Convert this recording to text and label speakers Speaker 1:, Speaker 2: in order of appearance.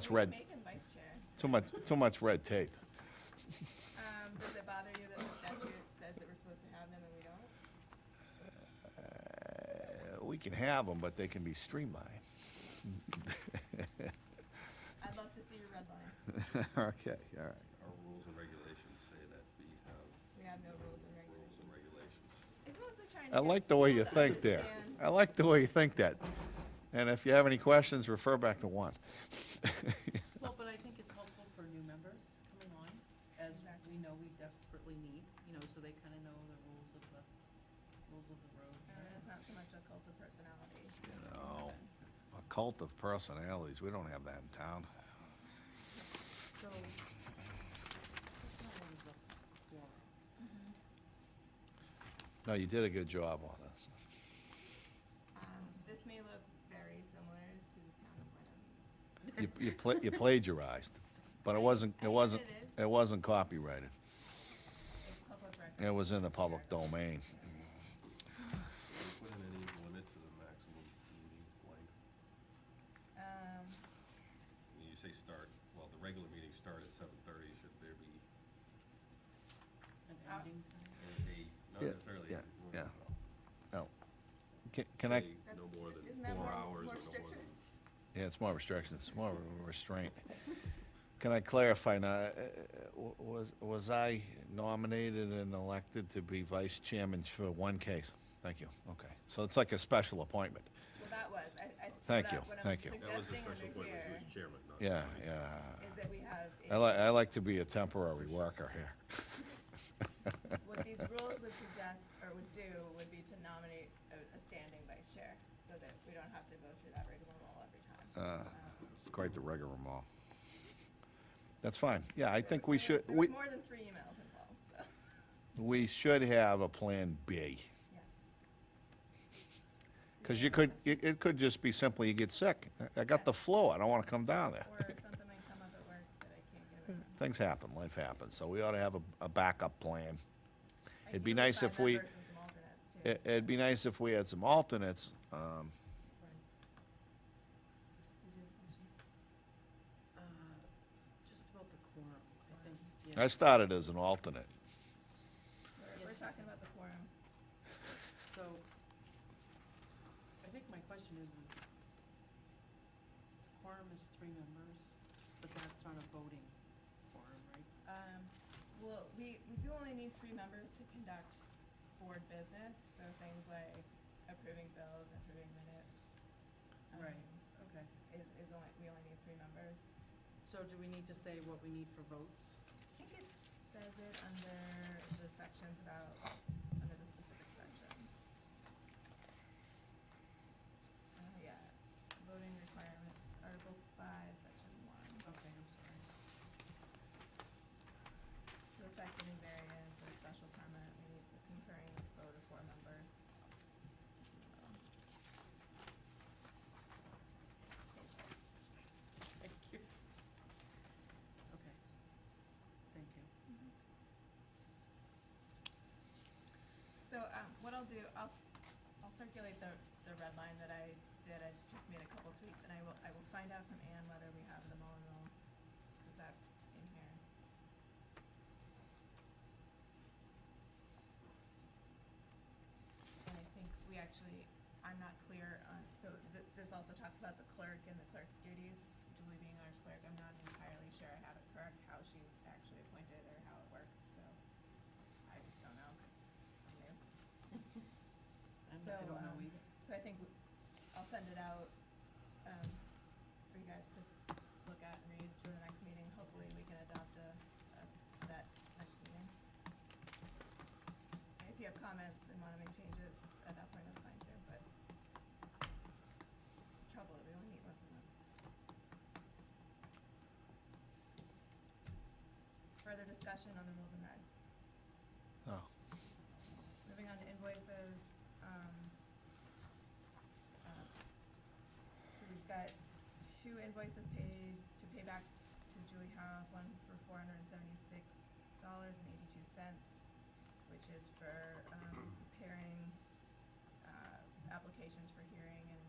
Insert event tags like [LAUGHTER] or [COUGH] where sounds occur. Speaker 1: It's red,
Speaker 2: Make him vice chair.
Speaker 1: too much, too much red tape.
Speaker 2: Um, does it bother you that the statute says that we're supposed to have them and we don't?
Speaker 1: Uh, We can have them, but they can be streamlined.
Speaker 2: I'd love to see your red line.
Speaker 1: [LAUGHS] Okay, all right.
Speaker 3: Our rules and regulations say that we have
Speaker 2: We have no rules and
Speaker 3: rules
Speaker 2: regulations.
Speaker 3: and regulations.
Speaker 2: It's mostly trying to.
Speaker 1: I
Speaker 2: get
Speaker 1: like the way you
Speaker 2: people to
Speaker 1: think there.
Speaker 2: understand.
Speaker 1: I like the way you think that. And if you have any questions, refer back to
Speaker 3: [LAUGHS]
Speaker 1: one.
Speaker 4: Well, but I think it's helpful for new members coming on, as we know we desperately need, you know, so they kind of know the rules of the, rules of the road.
Speaker 2: Uh, It's not so much a cult of personality.
Speaker 1: You know, a cult of personalities, we don't have that in town.
Speaker 4: So, which one was the quorum?
Speaker 1: No, you did a good job on this.
Speaker 2: Um, this may look very similar to the town of Wenham's.
Speaker 1: You, you pla- you plagiarized, but it wasn't,
Speaker 2: I
Speaker 1: it wasn't,
Speaker 2: edited.
Speaker 1: it wasn't copyrighted.
Speaker 2: It's public record.
Speaker 1: It was in the public domain.
Speaker 3: Do we put in any limit to the maximum meeting length?
Speaker 2: Um,
Speaker 3: When you say start, well, the regular meetings start at seven thirty, should there be
Speaker 4: An
Speaker 2: Uh,
Speaker 4: ending time?
Speaker 3: a, not
Speaker 1: Yeah,
Speaker 3: necessarily.
Speaker 1: yeah,
Speaker 3: a rule,
Speaker 1: yeah.
Speaker 3: well,
Speaker 1: No. Can- Can I,
Speaker 3: say No more than
Speaker 2: isn't that
Speaker 3: four
Speaker 2: more-
Speaker 3: hours
Speaker 2: more
Speaker 3: or no more than.
Speaker 2: strictures?
Speaker 1: Yeah, it's more restrictions, it's more of a restraint. Can I clarify now, uh, w- was, was I nominated and elected to be vice chairman for one case? Thank you, okay. So it's like a special appointment.
Speaker 2: Well, that was, I, I. so
Speaker 1: Thank
Speaker 2: that-
Speaker 1: you,
Speaker 2: what I'm
Speaker 1: thank you.
Speaker 3: That was a
Speaker 2: suggesting
Speaker 3: special
Speaker 2: under
Speaker 3: appointment, he
Speaker 2: here
Speaker 3: was chairman, not.
Speaker 1: Yeah,
Speaker 3: vice.
Speaker 2: Is
Speaker 1: yeah.
Speaker 2: that we have.
Speaker 1: I
Speaker 2: a-
Speaker 1: like, I like to be a temporary worker here.
Speaker 2: [LAUGHS] What these rules would suggest or would do would be to nominate a, a standing vice chair so that we don't have to go through that rigmarole every time.
Speaker 1: Uh,
Speaker 2: Um,
Speaker 1: It's quite the rigmarole. That's fine, yeah, I think we
Speaker 2: there-
Speaker 1: should,
Speaker 2: There
Speaker 1: we,
Speaker 2: was more than three emails involved,
Speaker 1: [LAUGHS]
Speaker 2: so,
Speaker 1: we should have a Plan B.
Speaker 2: yeah.
Speaker 1: Because you could, it, it could just be simply you get sick. I- I got the flu, I don't want to come down there.
Speaker 2: Or something might come up at work that I can't get away from.
Speaker 1: [LAUGHS] Things happen, life happens, so we ought to have a, a backup plan.
Speaker 2: I
Speaker 1: It'd
Speaker 2: do
Speaker 1: be
Speaker 2: with
Speaker 1: nice
Speaker 2: five
Speaker 1: if we- Eh,
Speaker 2: members and some alternates, too.
Speaker 1: It, it'd be nice if we had some alternates, um,
Speaker 4: Did you have a question? Uh, Just about the quorum, I think, yeah.
Speaker 1: I started as an alternate.
Speaker 2: We're- We're talking about the quorum.
Speaker 4: So, I think my question is, is quorum is three members, but that's not a voting quorum, right?
Speaker 2: Um, well, we, we do only need three members to conduct board business, so things like approving bills, approving minutes. um,
Speaker 4: Right. Okay.
Speaker 2: Is, is only, we only need three members.
Speaker 4: So do we need to say what we need for votes?
Speaker 2: I think it says it under the sections about, under the specific sections. Uh, yeah, voting requirements, Article five, section one,
Speaker 4: Okay, I'm sorry.
Speaker 2: to
Speaker 4: [LAUGHS]
Speaker 2: effect any variance or special permit, we need the conferring vote of four members.
Speaker 4: Thank you. Okay. Thank you.
Speaker 2: So, um, what I'll do, I'll, I'll circulate the, the red line that I did, I just made a couple tweaks, and I will, I will find out from Ann whether we have the Mullen rule, cause that's in here. And I think we actually, I'm not clear on, so th- this also talks about the clerk and the clerk's duties, Julie being our clerk, I'm not entirely sure I have it correct, how she's actually appointed or how it works, so I just
Speaker 4: [LAUGHS]
Speaker 2: don't know, 'cause I'm new.
Speaker 4: I'm-
Speaker 2: So,
Speaker 4: I don't know
Speaker 2: um,
Speaker 4: either.
Speaker 2: So I think w- I'll send it out, um, for you guys to look at and read for the next meeting. Hopefully, we can adopt a, a set next meeting. And If you have comments and wanna make changes at that point, that's fine too, but it's the trouble, that we only meet once a month. Further discussion on the rules and regs.
Speaker 1: Oh,
Speaker 2: Moving on to invoices, um, uh, so we've got two invoices paid to pay back to Julie House, one for four hundred and seventy-six dollars and eighty-two cents, which is for, um, preparing, uh, applications for hearing and